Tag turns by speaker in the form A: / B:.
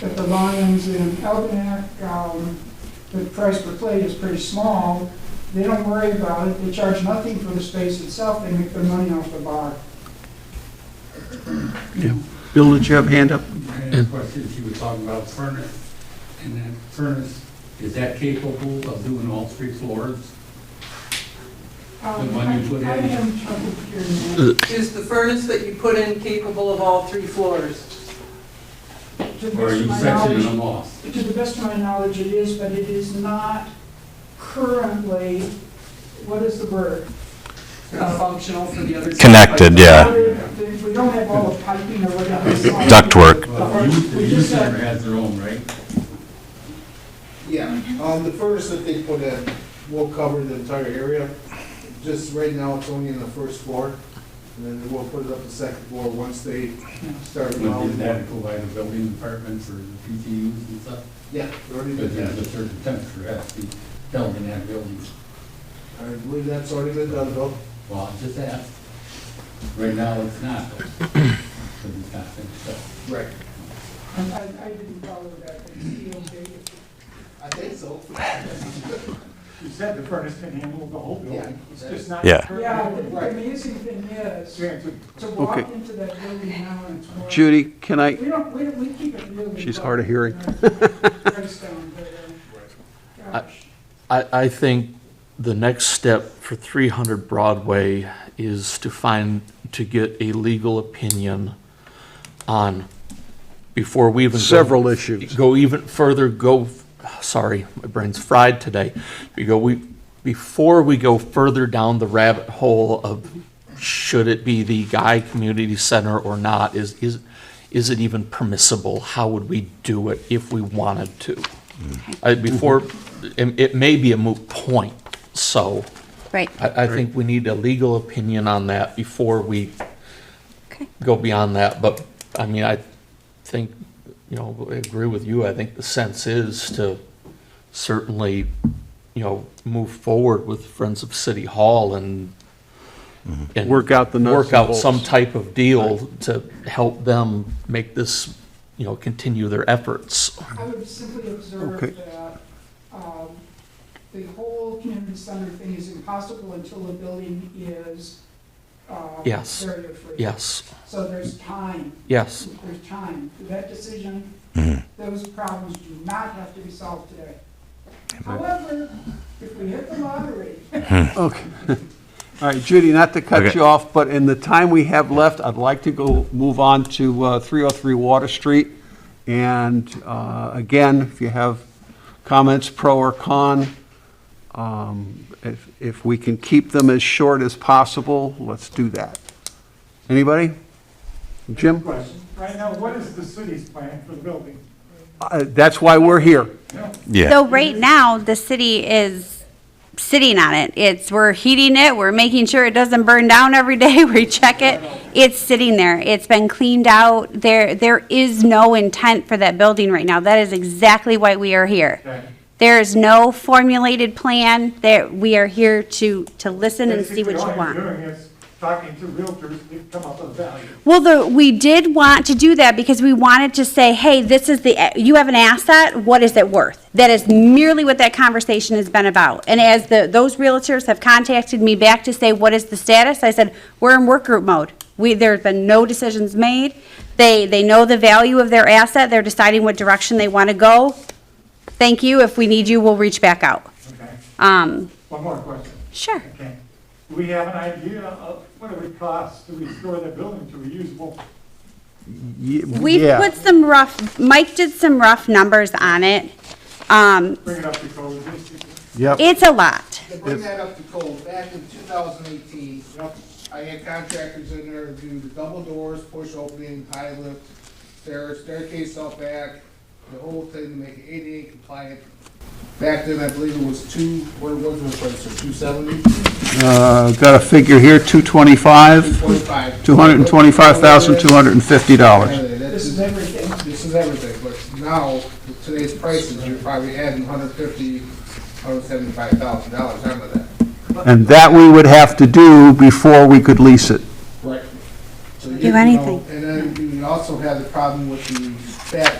A: that the volumes in Algonac, um, the price per plate is pretty small. They don't worry about it, they charge nothing for the space itself, they make their money off the bar.
B: Bill, did you have hand up?
C: And of course, since you were talking about furnace, and that furnace, is that capable of doing all three floors?
A: Um,
C: The one you put in.
A: I I am trouble hearing
D: Is the furnace that you put in capable of all three floors?
E: Uh,
A: that. To the
C: Or are
A: best of
C: you
A: my
C: sectioning
A: knowledge-
C: them off?
A: To the best of my knowledge, it is, but it is not currently, what is the word?
D: Not uh, functional for the other? side?
E: Connected, yeah.
A: If we don't have all the piping or whatever. it's like-
E: Ductwork.
C: Well, the youth, the
A: We
C: youth
A: just said-
C: center has their own, right?
F: Yeah,
G: Mm-hmm.
F: um, the furnace that they put in will cover the entire area. Just right now, it's only in the first floor, and then we'll put it up the second floor once they start
C: But did
F: mounting
C: that
F: that.
C: go by the building department for the PTUs and stuff?
F: Yeah, they already
C: Because
F: did
C: there's a
F: that.
C: certain temperature has to be held in that building.
F: I believe that's already been done, Bill.
C: Well, I just asked. Right now, it's not, though, because it's not finished up.
F: Right.
A: I, I didn't follow that, but it's E okay.
F: I think so.
H: You said the furnace can handle the whole building, it's just not.
E: Yeah.
A: Yeah, the- the amazing thing is,
H: Yeah, it's a-
A: to walk
B: Okay.
A: into that building now and it's more.
B: Judy, can I,
A: We don't, we don't, we keep it really.
B: She's
A: low.
B: hard of hearing.
A: Redstone, but, um, gosh.
I: I, I think the next step for 300 Broadway is to find, to get a legal opinion on, before we even. go-
B: several issues.
I: Go even further, go, sorry, my brain's fried today. We go, we, before we go further down the rabbit hole of should it be the Guy Community Center or not, is, is, is it even permissible? How would we do it if we wanted to? I- Before, it, it may be a moot point, so
G: Right,
I: I, I think we need a legal opinion on that before we
G: okay.
I: go beyond that, but, I mean, I think, you know, I agree with you, I think the sense is to certainly, you know, move forward with Friends of City Hall and. and
B: Work out the nuts
I: Work
B: and
I: out
B: bolts.
I: some type of deal to help them make this, you know, continue their efforts.
A: I would simply observe
B: Okay.
A: that um, the whole community center thing is impossible until the building is um,
I: Yes.
A: barrier-free.
I: Yes,
A: So there's time,
I: yes,
A: there's time. That decision, those problems do not have to be solved today. However, if we hit the lottery,
B: Okay. All right, Judy, not to cut
E: Okay.
B: you off, but in the time we have left, I'd like to go, move on to uh, 303 Water Street. And uh, again, if you have comments, pro or con, um, if, if we can keep them as short as possible, let's do that. Anybody? Jim?
H: Question, right now, what is the city's plan for the building?
B: Uh, That's why we're here.
E: Yeah.
G: So right now, the city is sitting on it. It's, we're heating it, we're making sure it doesn't burn down every day, we check it. It's sitting there, it's been cleaned out, there, there is no intent for that building right now. That is exactly why we are here. There is no formulated plan, that we are here to, to listen and see what you
H: Basically, all
G: want.
H: you're doing is talking to realtors, to come up with value.
G: Well, the, we did want to do that because we wanted to say, hey, this is the, you have an asset, what is it worth? That is merely what that conversation has been about. And as the, those realtors have contacted me back to say, what is the status? I said, we're in work group mode. We, there's been no decisions made. They, they know the value of their asset. They're deciding what direction they want to go. Thank you. If we need you, we'll reach back out.
H: Okay,
G: Um,
H: one more question,
G: sure.
H: okay? Do we have an idea of what it would cost to restore the building to reusable?
B: Ye-
G: We
B: yeah.
G: put some rough, Mike did some rough numbers on it. Um,
H: Bring it up to code, just-
B: Yep.
G: it's a lot.
F: To bring that up to code, back in 2018, I had contractors in there do the double doors, push opening, high lift, stair, staircase out back, the whole thing to make it ADA compliant. Back then, I believe it was two, what was the price, or 270,
B: Uh, Got a figure here, 225,
F: 225?
B: $225,250.
A: this is everything.
F: This is everything, but now, with today's prices, you're probably adding 150, 175,000 dollars onto that.
B: And that we would have to do before we could lease it.
F: Right. So you
G: Do
F: know,
G: anything.
F: And then you also have the problem with the fact